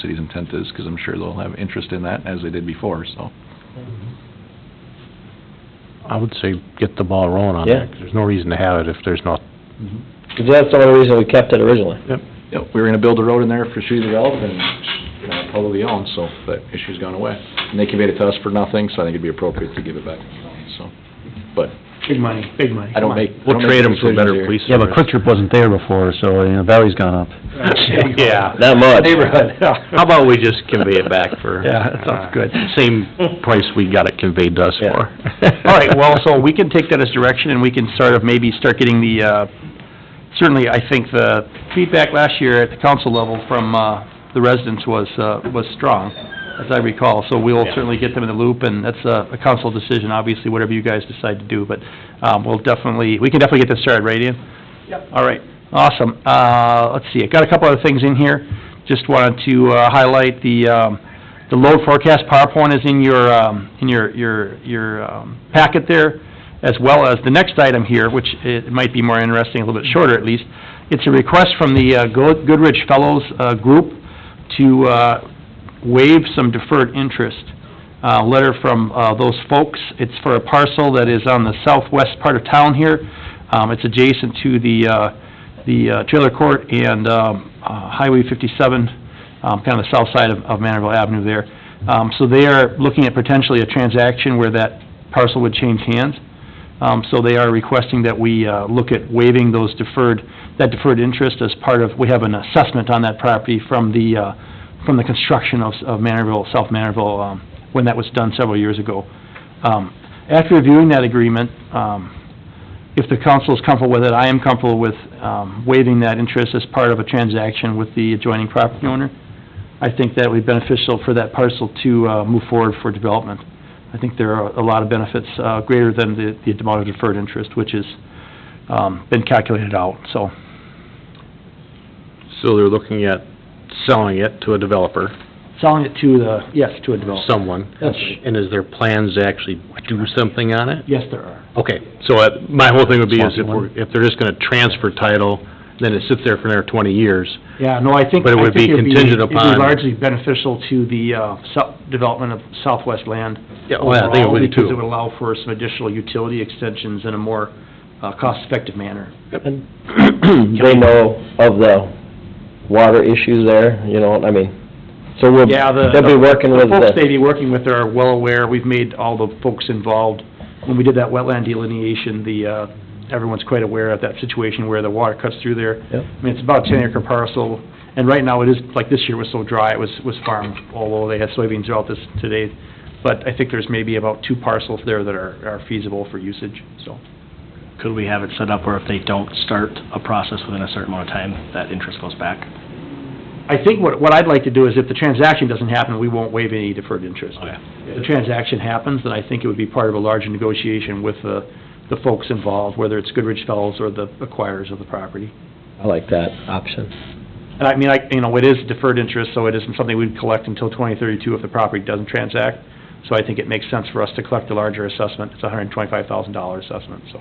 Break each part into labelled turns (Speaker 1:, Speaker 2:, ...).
Speaker 1: city's intent is, because I'm sure they'll have interest in that, as they did before, so.
Speaker 2: I would say get the ball rolling on
Speaker 3: Yeah.
Speaker 2: that, 'cause there's no reason to have it if there's not,
Speaker 3: 'Cause that's the only reason we kept it originally.
Speaker 1: Yep, we were gonna build a road in there for Shoe to develop, and, you know, totally owned, so that issue's gone away. And they conveyed it to us for nothing, so I think it'd be appropriate to give it back, so. But
Speaker 4: Big money, big money.
Speaker 1: I don't make, I
Speaker 2: we'll
Speaker 1: don't make
Speaker 2: trade them for
Speaker 1: decisions
Speaker 2: better
Speaker 1: here.
Speaker 2: police.
Speaker 5: Yeah, but Quick Trip wasn't there before, so, you know, value's gone up.
Speaker 2: Yeah.
Speaker 3: Not much.
Speaker 2: Neighborhood. How about we just convey it back for? uh,
Speaker 5: Yeah, that sounds good.
Speaker 2: Same price we got it conveyed to us
Speaker 3: Yeah.
Speaker 2: for.
Speaker 5: All right, well, so we can take that as direction, and we can sort of maybe start getting the, uh, certainly, I think the feedback last year at the council level from, uh, the residents was, uh, was strong, as I recall, so we'll certainly get them in the loop, and that's a, a council decision, obviously, whatever you guys decide to do, but, um, we'll definitely, we can definitely get this started, right, Ian? Yep. All right, awesome. Uh, let's see, I've got a couple other things in here, just wanted to, uh, highlight the, um, the load forecast PowerPoint is in your, um, in your, your, your um, packet there, as well as the next item here, which it might be more interesting, a little bit shorter at least. It's a request from the uh, Go- Goodrich Fellows uh, Group to uh, waive some deferred interest. Uh, Letter from uh, those folks, it's for a parcel that is on the southwest part of town here. Um, It's adjacent to the, uh, the uh, trailer court and um, uh, Highway 57 um, kind of the south side of of Manorville Avenue there. Um, So they are looking at potentially a transaction where that parcel would change hands. Um, So they are requesting that we uh, look at waiving those deferred, that deferred interest as part of, we have an assessment on that property from the, uh, from the construction of of Manorville, South Manorville, um, when that was done several years ago. Um, After reviewing that agreement, um, if the council is comfortable with it, I am comfortable with um, waiving that interest as part of a transaction with the adjoining property owner. I think that would be beneficial for that parcel to uh, move forward for development. I think there are a lot of benefits, uh, greater than the the amount of deferred interest, which has um, been calculated out, so.
Speaker 2: So they're looking at selling it to a developer,
Speaker 5: Selling it to the, yes, to a
Speaker 2: Oh.
Speaker 5: developer.
Speaker 2: someone.
Speaker 5: That's right.
Speaker 2: And is there plans to actually do something on it?
Speaker 5: Yes, there are.
Speaker 2: Okay, so uh, my whole thing would be is if
Speaker 5: Responsible.
Speaker 2: we're, if they're just gonna transfer title, then it sits there for another twenty years.
Speaker 5: Yeah, no, I think.
Speaker 2: But it
Speaker 5: I
Speaker 2: would
Speaker 5: think
Speaker 2: be
Speaker 5: it'd
Speaker 2: contingent
Speaker 5: It'd
Speaker 2: upon-
Speaker 5: be largely beneficial to the uh, sou- development of Southwest land.
Speaker 2: Yeah, well, I think it
Speaker 5: overall,
Speaker 2: would
Speaker 5: Because it would
Speaker 2: too.
Speaker 5: allow for some additional utility extensions in a more uh, cost-effective manner.
Speaker 3: They know of the water issues there, you know, I mean, so we'll,
Speaker 5: Yeah, the-
Speaker 3: they'll be working
Speaker 5: The
Speaker 3: with
Speaker 5: folks they'd
Speaker 3: the,
Speaker 5: be working with are well aware, we've made all the folks involved, when we did that wetland delineation, the, uh, everyone's quite aware of that situation where the water cuts through there.
Speaker 3: Yep.
Speaker 5: I mean, it's about ten acre parcel, and right now it is, like this year was so dry, it was, was farmed, although they had soybeans throughout this today. But I think there's maybe about two parcels there that are, are feasible for usage, so.
Speaker 6: Could we have it set up where if they don't start a process within a certain amount of time, that interest goes back?
Speaker 5: I think what, what I'd like to do is if the transaction doesn't happen, we won't waive any deferred interest.
Speaker 6: Okay.
Speaker 5: If the transaction happens, then I think it would be part of a larger negotiation with the, the folks involved, whether it's Goodrich Fellows or the acquirers of the property.
Speaker 3: I like that option.
Speaker 5: And I mean, I, you know, it is deferred interest, so it isn't something we'd collect until 2032 if the property doesn't transact. So I think it makes sense for us to collect a larger assessment. It's a $125,000 assessment, so.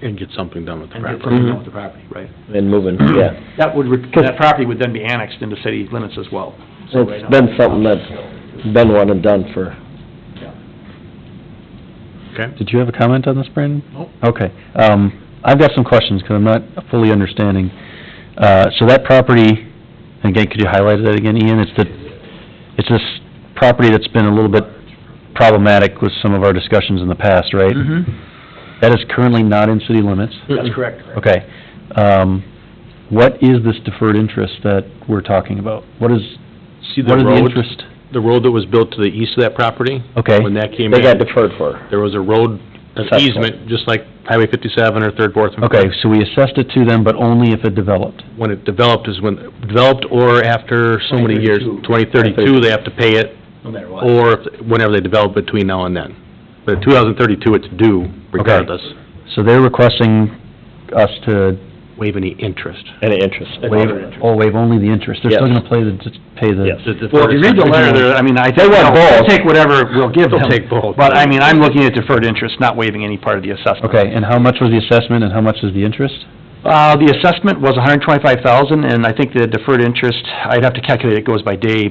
Speaker 2: And get something done with the
Speaker 5: And get
Speaker 2: property.
Speaker 5: something done with the property, right.
Speaker 3: And moving, yeah.
Speaker 5: That would, re- that property would then be annexed into city limits as well. So right now-
Speaker 3: It's been something that's been one and done for,
Speaker 5: Okay. Okay. Did you have a comment on this, Brandon?
Speaker 1: Nope.
Speaker 5: Okay. Um, I've got some questions, because I'm not fully understanding. Uh, so that property, again, could you highlight that again, Ian? It's the, it's this property that's been a little bit problematic with some of our discussions in the past, right?
Speaker 2: Mm-hmm.
Speaker 5: That is currently not in city limits?
Speaker 2: That's
Speaker 5: correct. Okay. Um, what is this deferred interest that we're talking about? What is,
Speaker 2: See the
Speaker 5: what is the
Speaker 2: road,
Speaker 5: interest?
Speaker 2: the road that was built to the east of that property?
Speaker 5: Okay.
Speaker 2: When that came
Speaker 3: they got
Speaker 2: in,
Speaker 3: deferred for.
Speaker 2: there was a road, an
Speaker 3: Assessment.
Speaker 2: easement, just like Highway fifty-seven or Third, Fourth. and Fifth.
Speaker 5: Okay, so we assessed it to them, but only if it developed?
Speaker 2: When it developed is when, developed or after so many years, twenty thirty-two, they have to pay it,
Speaker 5: No matter what.
Speaker 2: or if- whenever they develop between now and then. But two thousand thirty-two, it's due regardless,
Speaker 5: So they're requesting us to
Speaker 2: waive any interest.
Speaker 3: Any interest?
Speaker 5: waive, oh, waive only the interest, they're still
Speaker 3: Yes.
Speaker 5: gonna play the, just pay
Speaker 3: Yes.
Speaker 5: the...
Speaker 2: Well,
Speaker 5: if you read the letter there, I mean, I think, they'll take whatever we'll give them.
Speaker 2: They'll take both.
Speaker 5: But, I mean, I'm looking at deferred interest, not waiving any part of the assessment.
Speaker 7: Okay, and how much was the assessment and how much is the interest?
Speaker 5: Uh, the assessment was $125,000, and I think the deferred interest, I'd have to calculate, it goes by day,